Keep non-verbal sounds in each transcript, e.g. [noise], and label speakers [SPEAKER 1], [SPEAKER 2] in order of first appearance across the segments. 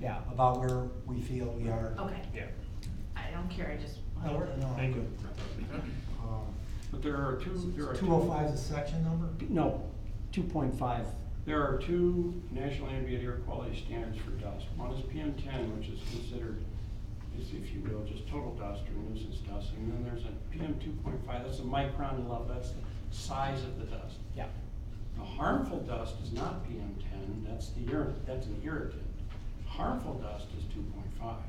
[SPEAKER 1] yeah, about where we feel we are.
[SPEAKER 2] Okay,
[SPEAKER 3] Yeah.
[SPEAKER 2] I don't care, I just.
[SPEAKER 4] Oh,
[SPEAKER 1] No, we're, no,
[SPEAKER 3] Thank you.
[SPEAKER 4] Um,
[SPEAKER 3] But there are two, there are two.
[SPEAKER 1] Two oh five is the section number?
[SPEAKER 5] No, two point five.
[SPEAKER 3] There are two national ambient air quality standards for dust. One is PM ten, which is considered, is if you will, just total dust or nuisance dust. And then there's a PM two point five, that's a micron level, that's the size of the dust.
[SPEAKER 5] Yeah.
[SPEAKER 3] The harmful dust is not PM ten, that's the irritant, that's an irritant. Harmful dust is two point five.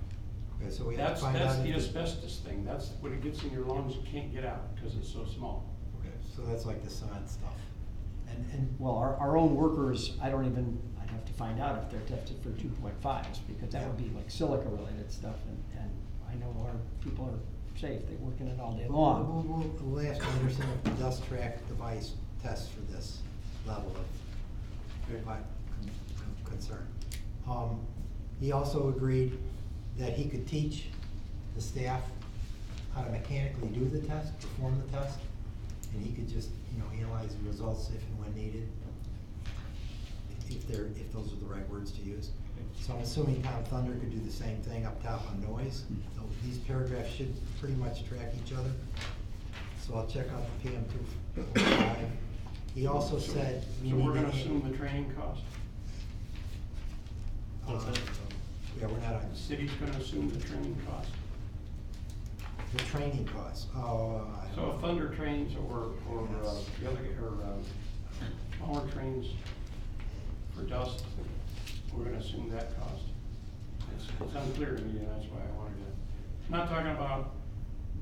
[SPEAKER 4] Okay, so we have to
[SPEAKER 3] That's,
[SPEAKER 4] find out.
[SPEAKER 3] that's the
[SPEAKER 4] if-
[SPEAKER 3] asbestos thing, that's when it gets in your lungs, you can't get out because it's so small.
[SPEAKER 4] Okay, so that's like the sign stuff.
[SPEAKER 5] And, and, well, our, our own workers, I don't even, I'd have to find out if they're tested for two point fives, because that would be like silica related stuff, and, and I know our people are safe, they're working it all day long.
[SPEAKER 4] We'll, we'll, we'll ask Anderson if the dust track device tests for this level of
[SPEAKER 3] Okay.
[SPEAKER 4] vi- con- con- concern. Um, he also agreed that he could teach the staff how to mechanically do the test, perform the test, and he could just, you know, analyze the results if and when needed, if they're, if those are the right words to use. So I'm assuming Tom Thunder could do the same thing up top on noise. So These paragraphs should pretty much track each other. So I'll check out the PM two four five. He also
[SPEAKER 3] So-
[SPEAKER 4] said we
[SPEAKER 3] So
[SPEAKER 4] need
[SPEAKER 3] we're
[SPEAKER 4] to
[SPEAKER 3] gonna
[SPEAKER 4] add-
[SPEAKER 3] assume the training cost?
[SPEAKER 4] uh, Yeah, we're not on,
[SPEAKER 3] The city's gonna assume the training cost.
[SPEAKER 4] the training costs, oh, I don't
[SPEAKER 3] So if
[SPEAKER 4] know.
[SPEAKER 3] Thunder trains or, or uh, the other, or, um, Palmer trains for dust, we're gonna assume that cost. It's, it's unclear to me, and that's why I wanted to, not talking about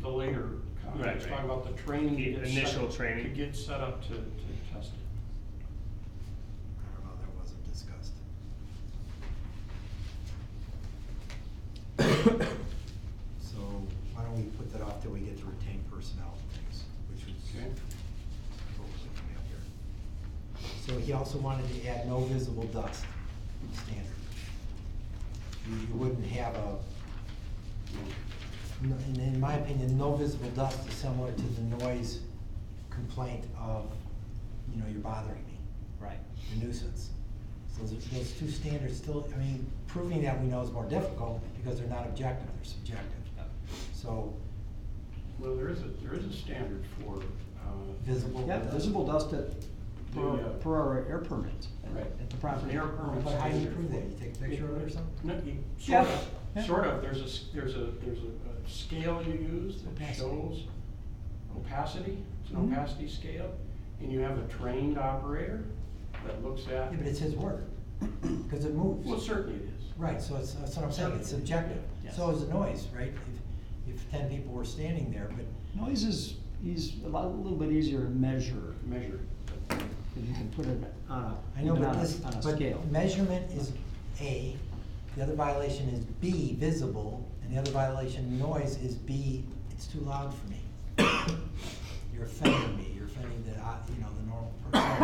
[SPEAKER 3] the later comment,
[SPEAKER 6] Right,
[SPEAKER 3] it's talking
[SPEAKER 6] right.
[SPEAKER 3] about the training. to
[SPEAKER 6] The
[SPEAKER 3] get set-
[SPEAKER 6] initial training.
[SPEAKER 3] To get set up to, to test it.
[SPEAKER 4] I don't know, that wasn't discussed. So why don't we put that off till we get to retained personnel things, which was
[SPEAKER 3] Okay.
[SPEAKER 4] hopefully coming up here. So he also wanted to add no visible dust standard. You, you wouldn't have a, Hmm. no- in, in my opinion, no visible dust is similar to the noise complaint of, you know, you're bothering me
[SPEAKER 5] Right.
[SPEAKER 4] the nuisance. So those, those two standards still, I mean, proving that we know is more difficult because they're not objective, they're subjective. So
[SPEAKER 3] Well, there is a, there is a standard for, uh,
[SPEAKER 4] visible.
[SPEAKER 5] Yeah, visible dust at, per,
[SPEAKER 3] The, uh,
[SPEAKER 5] per our air permit, at-
[SPEAKER 3] Right.
[SPEAKER 5] at the property.
[SPEAKER 3] Air permit.
[SPEAKER 4] But how do you prove that? You take a picture of it or something?
[SPEAKER 3] No, you, sort
[SPEAKER 5] Yeah. Yeah.
[SPEAKER 3] of, sort of, there's a, s- there's a, there's a a scale you use that
[SPEAKER 4] Opacity. Mm-hmm.
[SPEAKER 3] shows opacity, it's an
[SPEAKER 5] Mhm.
[SPEAKER 3] opacity scale, and you have a trained operator that looks at.
[SPEAKER 4] Yeah, but it's his [clears throat] word, because it moves.
[SPEAKER 3] Well, certainly it is.
[SPEAKER 4] Right, so it's, that's what I'm saying, it's subjective.
[SPEAKER 5] Yes.
[SPEAKER 4] So is the noise, right? If, if ten people were standing there, but
[SPEAKER 5] Noise is, is a lot, a little bit easier to measure,
[SPEAKER 3] Measure.
[SPEAKER 5] if you can put it on a,
[SPEAKER 4] I know,
[SPEAKER 5] even
[SPEAKER 4] but
[SPEAKER 5] on
[SPEAKER 4] this,
[SPEAKER 5] a, on a
[SPEAKER 4] but
[SPEAKER 5] scale.
[SPEAKER 4] measurement is A, the other violation is B, visible, and the other violation, noise, is B, it's too loud for me. [coughs] You're offending me, you're offending the, uh, you know, the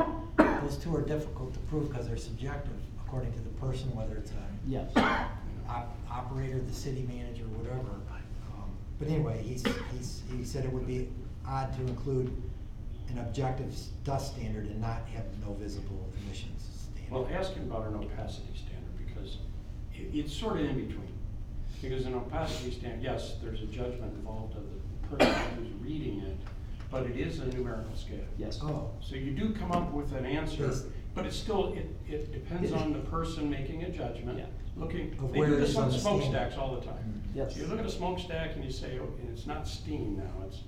[SPEAKER 4] normal person. [coughs] Those two are difficult to prove because they're subjective, according to the person, whether it's a
[SPEAKER 5] Yes,
[SPEAKER 4] op- operator, the city manager, whatever. Um, But anyway, he's, he's, he said it would be odd to include an objective s- dust standard and not have no visible emissions standard.
[SPEAKER 3] Well, ask him about an opacity standard, because it, it's sort of in between. Because an opacity standard, yes, there's a judgment involved of the person who's reading it, but it is a numerical scale.
[SPEAKER 5] yes.
[SPEAKER 4] Oh,
[SPEAKER 3] So you do come up with an answer,
[SPEAKER 4] Yes.
[SPEAKER 3] but it's still, it, it depends on the person making a judgment,
[SPEAKER 5] Yeah.
[SPEAKER 3] looking,
[SPEAKER 4] Of
[SPEAKER 3] they
[SPEAKER 4] where
[SPEAKER 3] do
[SPEAKER 4] it
[SPEAKER 3] this
[SPEAKER 4] is
[SPEAKER 3] on
[SPEAKER 4] on the standard.
[SPEAKER 3] smokestacks all the time.
[SPEAKER 4] Mm.
[SPEAKER 5] Yes.
[SPEAKER 3] So you look at a smokestack and you say, oh, and it's not steam now, it's,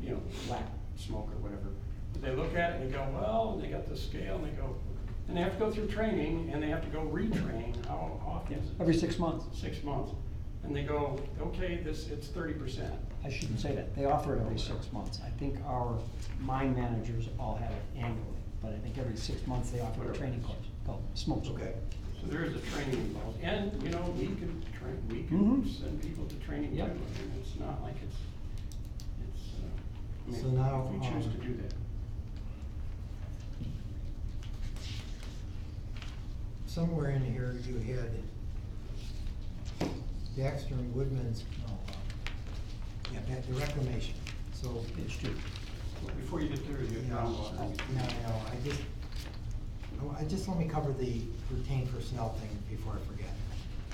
[SPEAKER 3] you know, black smoke or whatever. But they look at it and they go, well, and they got the scale and they go, and they have to go through training and they have to go retrain, how often is it?
[SPEAKER 5] Every six months.
[SPEAKER 3] Six months. And they go, okay, this, it's thirty percent.
[SPEAKER 5] I shouldn't say that, they offer it every six months. I think our mine managers all have it annually, but I think every six months they offer a training course called Smoke. School.
[SPEAKER 4] okay.
[SPEAKER 3] So there is a training involved, and, you know, we could train, we could
[SPEAKER 5] Mhm.
[SPEAKER 3] send people to training too, I
[SPEAKER 5] Yep.
[SPEAKER 3] mean, it's not like it's, it's, uh, I
[SPEAKER 4] So
[SPEAKER 3] mean,
[SPEAKER 4] now,
[SPEAKER 3] if we choose to
[SPEAKER 4] um,
[SPEAKER 3] do that.
[SPEAKER 4] Somewhere in here you had Baxter and Woodman's, no, um, yeah, that- the reclamation, so.
[SPEAKER 5] It's true.
[SPEAKER 3] But Before you get there, you
[SPEAKER 4] No, I- oh,
[SPEAKER 3] have.
[SPEAKER 4] No, no, I just, I wa- I just, let me cover the retained personnel thing before I forget.